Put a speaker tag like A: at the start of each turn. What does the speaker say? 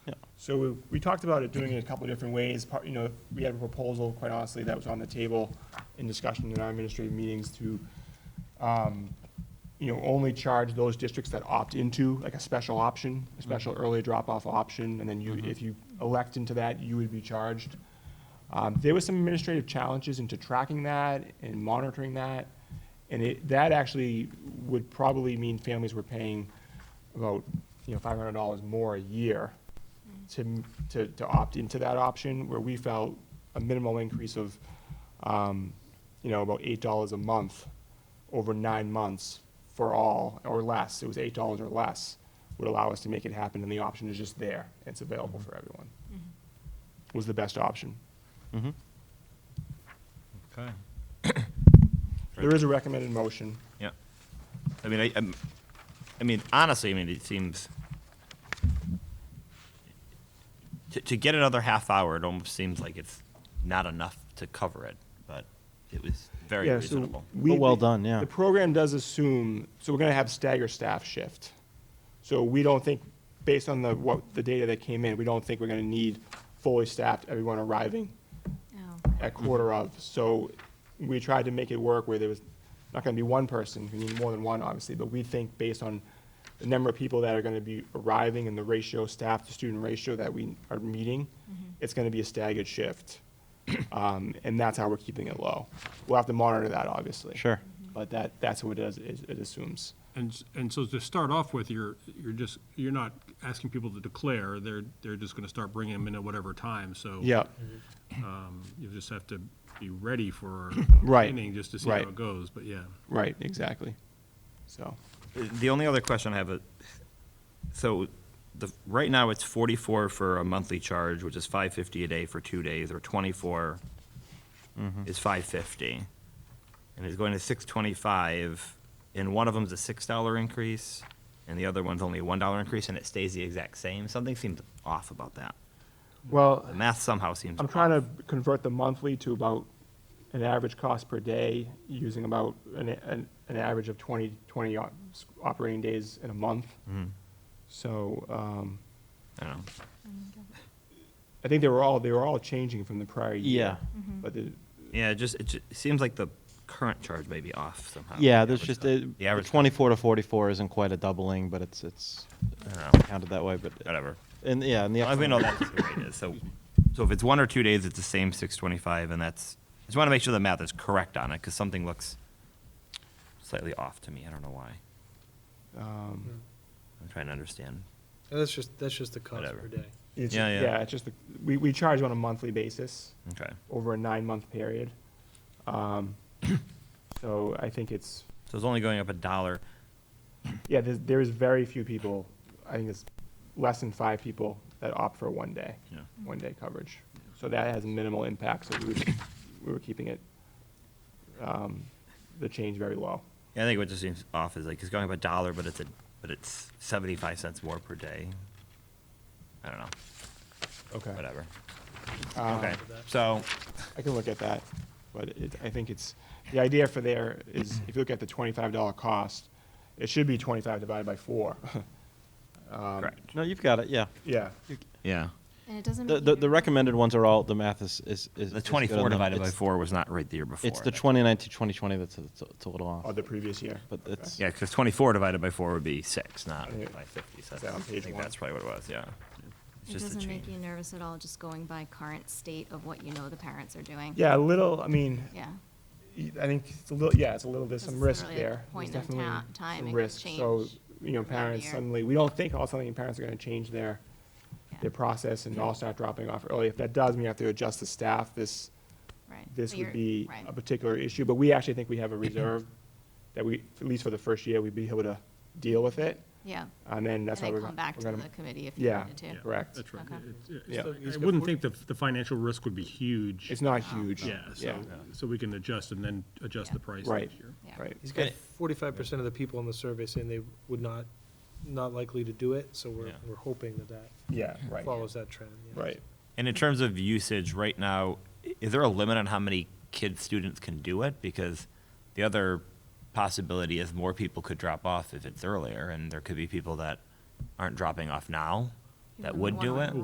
A: So we, we talked about it doing it a couple of different ways. Part, you know, we had a proposal, quite honestly, that was on the table in discussion in our administrative meetings to, um, you know, only charge those districts that opt into, like a special option, a special early drop-off option, and then you, if you elect into that, you would be charged. Um, there was some administrative challenges into tracking that and monitoring that, and it, that actually would probably mean families were paying about, you know, five hundred dollars more a year to, m- to, to opt into that option, where we felt a minimal increase of, um, you know, about eight dollars a month over nine months for all, or less, it was eight dollars or less, would allow us to make it happen, and the option is just there, and it's available for everyone. Was the best option.
B: Okay.
A: There is a recommended motion.
B: Yeah. I mean, I, I'm, I mean, honestly, I mean, it seems, to, to get another half hour, it almost seems like it's not enough to cover it, but it was very
A: Yeah, so
B: reasonable.
A: we-
C: But well done, yeah.
A: The program does assume, so we're gonna have stagger staff shift. So we don't think, based on the, what, the data that came in, we don't think we're gonna need fully staffed, everyone arriving
D: Oh.
A: at quarter of. So we tried to make it work where there was not gonna be one person, we need more than one, obviously, but we think based on the number of people that are gonna be arriving and the ratio, staff to student ratio that we are meeting, it's gonna be a staggered shift. Um, and that's how we're keeping it low. We'll have to monitor that, obviously.
C: Sure.
A: But that, that's what it does, it it assumes.
E: And, s- and so to start off with, you're, you're just, you're not asking people to declare, they're, they're just gonna start bringing them in at whatever time, so.
A: Yeah,
E: um, You just have to be ready for.
A: Right,
E: Inning, just to see how
A: right.
E: it goes, but yeah.
A: right, exactly. So,
B: The only other question I have, is, so the, right now it's forty-four for a monthly charge, which is five fifty a day for two days, or twenty-four
C: Mm-hmm.
B: is five fifty. And it's going to six twenty-five, and one of them's a six dollar increase, and the other one's only a one dollar increase, and it stays the exact same. Something seems off about that.
A: well,
B: The math somehow seems
A: I'm
B: off.
A: trying to convert the monthly to about an average cost per day, using about an, an, an average of 20, 20 op- s- operating days in a month. So, um,
B: I don't know.
A: I think they were all, they were all changing from the prior year.
C: Yeah.
A: But the,
B: Yeah, it just, it ju- it seems like the current charge may be off somehow.
C: Yeah,
B: The
C: there's
B: average
C: just,
B: cost.
C: uh,
B: The average. cost.
C: twenty-four to forty-four isn't quite a doubling, but it's, it's
B: I don't know.
C: counted that way, but,
B: Whatever.
C: and, yeah, and the.
B: Well, we
C: upcoming-
B: know that's the way it is, so, so if it's one or two days, it's the same six twenty-five, and that's, I just want to make sure the math is correct on it, because something looks slightly off to me, I don't know why.
A: um,
B: I'm trying to understand.
F: That's just, that's just the cost
B: Whatever.
F: per day.
A: it's,
B: Yeah, yeah.
A: yeah, it's just, the- we, we charge on a monthly basis.
B: Okay,
A: over a nine-month period. Um, So I think it's,
B: so it's only going up a dollar,
A: yeah, there's, there is very few people, I think it's less than five people that opt for one day,
B: you know,
A: one day coverage. So that has minimal impact, so we were, we were keeping it, um, the change very low.
B: Yeah, I think what just seems off is like, it's going up a dollar, but it's a, but it's seventy-five cents more per day. I don't know,
A: Okay.
B: whatever,
A: Um,
B: okay, so,
A: I can look at that, but it, I think it's, the idea for there is, if you look at the twenty-five dollar cost, it should be twenty-five divided by four. Um,
B: correct,
C: No, you've got it, yeah.
A: Yeah,
B: yeah.
D: And it doesn't.
C: The,
D: make
C: the,
D: you-
C: the recommended ones are all, the math is, is. is- is
B: The
C: good
B: twenty-four
C: on them.
B: divided by
C: It's-
B: four was not right the year before.
C: It's the
B: that-
C: twenty-nine to twenty-twenty that's, a- it's a- it's a little
A: of
C: off,
A: the previous year.
C: but it's.
B: Yeah, because 24 divided by 4 would be 6, not
A: Yeah.
B: by 50. So
A: Is that on
B: I
A: page
B: think
A: one?
B: that's probably what it was, yeah. It's
D: It
B: just the
D: doesn't make
B: change.
D: you nervous at all, just going by current state of what you know the parents are doing?
A: Yeah, a little, I mean,
D: Yeah.
A: y- I think it's a little, yeah, it's a little, there's
D: Because
A: some
D: it's
A: risk
D: really a
A: there. There's
D: point in
A: definitely
D: ta-
A: some
D: time it could
A: risk. So,
D: change
A: you know,
D: from that
A: parents
D: year.
A: suddenly, we don't think all suddenly parents are gonna change their,
D: Yeah.
A: their process and all start dropping off early. If that does, we have to adjust the staff. This,
D: Right.
A: this
D: But
A: would
D: you're-
A: be
D: right.
A: a particular issue, but we actually think we have a reserve that we, at least for the first year, we'd be able to deal with it.
D: Yeah.
A: And then
D: And
A: that's why we're.
D: then come back
A: we're
D: to
A: gonna-
D: the committee if you
A: Yeah,
D: wanted to.
E: Yeah,
A: correct.
E: That's right.
D: Okay.
E: It's- it's-
A: Yeah.
E: so
F: He's
E: I
F: got
E: wouldn't
F: 40
E: think the, the financial risk would be huge.
A: It's not
D: Oh.
A: huge.
E: Yeah, so, so we can adjust and then adjust the
D: Yeah.
E: price
A: Right,
E: next year.
D: Yeah.
A: right.
F: He's got forty-five percent of the people in the survey saying they would not, not likely to do it, so we're,
B: Yeah.
F: we're hoping that that
A: Yeah, right,
F: follows that trend. yeah.
A: right.
B: And in terms of usage, right now, i- is there a limit on how many kids, students can do it? Because the other possibility is more people could drop off if it's earlier, and there could be people that aren't dropping off now that
D: Even
B: would do
D: one.
B: it.